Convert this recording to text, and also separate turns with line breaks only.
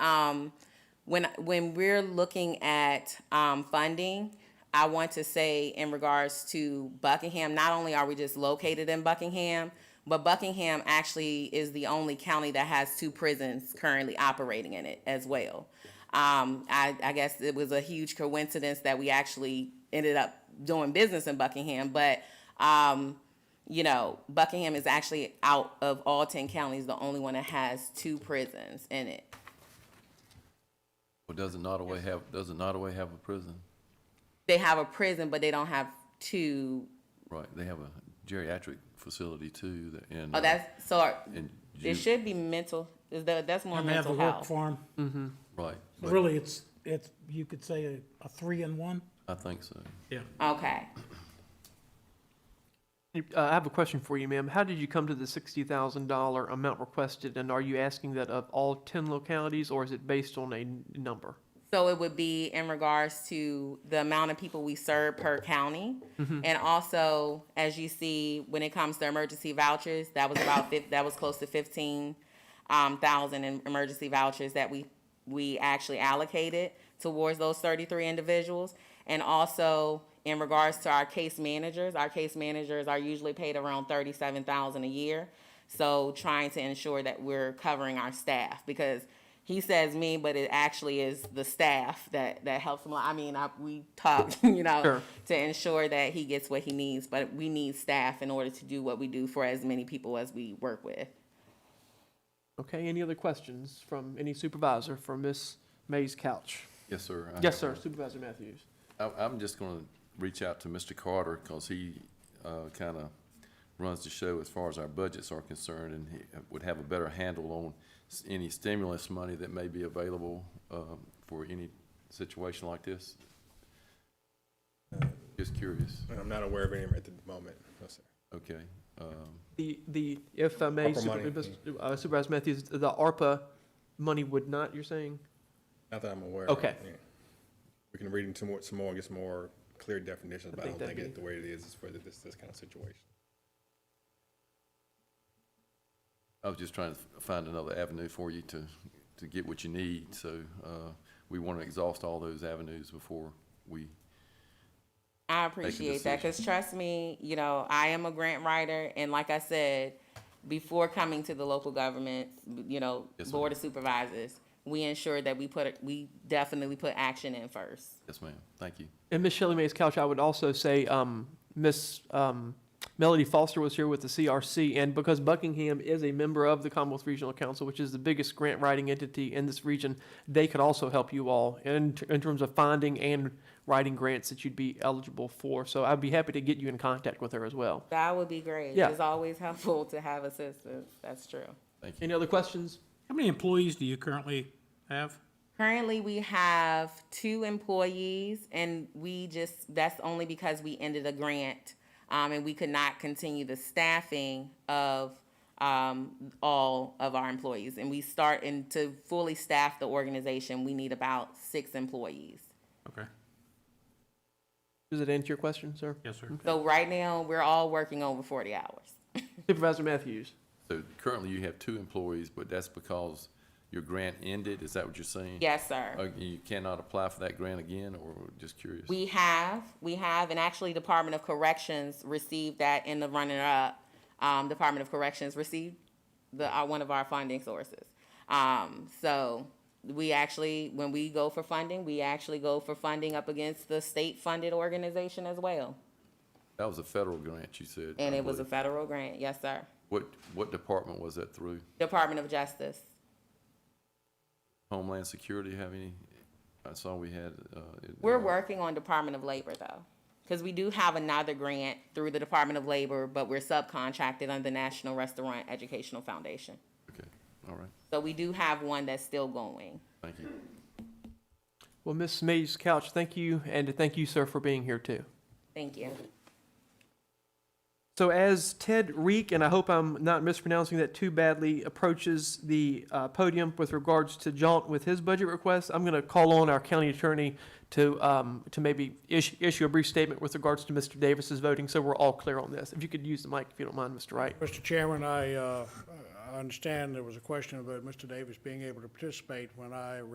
Um, when when we're looking at um, funding, I want to say in regards to Buckingham, not only are we just located in Buckingham, but Buckingham actually is the only county that has two prisons currently operating in it as well. Um, I, I guess it was a huge coincidence that we actually ended up doing business in Buckingham, but um, you know, Buckingham is actually out of all 10 counties, the only one that has two prisons in it.
Well, doesn't Nottaway have, doesn't Nottaway have a prison?
They have a prison, but they don't have two.
Right, they have a geriatric facility too, that- and.
Oh,
uh,
that's so. are-
And
it
you,
should be mental. Is that that's more
And they have a
mental
work
health?
farm.
right, but
Really, it's, it's, you could say a, a three in one.
I think so.
Yeah.
Okay.
You- uh, I have a question for you, ma'am. How did you come to the sixty thousand dollar amount requested, and are you asking that of all ten localities, or is it based on a n- number?
So it would be in regards to the amount of people we serve per county. And also, as you see, when it comes to emergency vouchers, that was about, fif- that was close to fifteen um, thousand in emergency vouchers that we, we actually allocated towards those thirty-three individuals. And also, in regards to our case managers, our case managers are usually paid around thirty-seven thousand a year. So trying to ensure that we're covering our staff because he says me, but it actually is the staff that, that helps him. I mean, I, we talk, you know,
Sure.
to ensure that he gets what he needs, but we need staff in order to do what we do for as many people as we work with.
Okay, any other questions from any supervisor from Miss May's couch?
Yes, sir. I
Yes, sir,
have
Supervisor Matthews.
a- I, I'm just gonna reach out to Mr. Carter, cause he, uh, kinda runs the show as far as our budgets are concerned, and he uh, would have a better handle on s- any stimulus money that may be available, um, for any situation like this. Just curious,
I'm not aware of any at the moment, no, sir.
okay, um.
The, the, if I may,
ARPA
Super-
money.
uh, Supervisor Matthews, the ARPA money would not, you're saying?
Not that I'm aware of.
Okay.
yeah. We can read into more, some more, and get some more clear definitions, but I
think
don't think
that'd
it, the way it is, is for this, this kind of situation.
I was just trying to f- find another avenue for you to, to get what you need, so, uh, we want to exhaust all those avenues before we,
I appreciate that because trust me, you know, I am a grant writer. And like I said, before coming to the local government, you know,
Yes,
Board of Supervisors, we ensured that we put, we definitely put action in first.
yes, ma'am, thank you.
And Miss Shelley May's couch, I would also say, um, Miss, um, Melody Foster was here with the CRC, and because Buckingham is a member of the Commonwealth Regional Council, which is the biggest grant writing entity in this region, they could also help you all in, in terms of finding and writing grants that you'd be eligible for. So I'd be happy to get you in contact with her as well.
That would be great.
Yeah.
It's always helpful to have assistance. That's true.
Any other questions?
How many employees do you currently have?
Currently, we have two employees, and we just, that's only because we ended a grant, um, and we could not continue the staffing of, um, all of our employees. And we start, and to fully staff the organization, we need about six employees.
Okay,
Does that answer your question, sir?
yes, sir.
So right now, we're all working over forty hours.
Supervisor Matthews?
So currently you have two employees, but that's because your grant ended, is that what you're saying?
Yes, sir.
Uh, you cannot apply for that grant again, or just curious?
We have, we have, and actually Department of Corrections received that in the runner-up. Um, Department of Corrections received the, uh, one of our funding sources. Um, so we actually, when we go for funding, we actually go for funding up against the state-funded organization as well.
That was a federal grant, you said.
And
I
it was a
believe.
federal grant, yes, sir.
What, what department was that through?
Department of Justice.
Homeland Security have any? I saw we had, uh. it-
We're
uh,
working on Department of Labor though, because we do have another grant through the Department of Labor, but we're subcontracted under National Restaurant Educational Foundation.
Okay, all right,
So we do have one that's still going.
thank you.
Well, Miss May's couch, thank you, and thank you, sir, for being here too.
Thank you.
So as Ted Reek, and I hope I'm not mispronouncing that too badly, approaches the uh, podium with regards to jaunt with his budget request, I'm going to call on our county attorney to, um, to maybe issue, issue a brief statement with regards to Mr. Davis's voting, so we're all clear on this. If you could use the mic, if you don't mind, Mr. Wright.
Mr. Chairman, I, uh, I understand there was a question about Mr. Davis being able to participate when I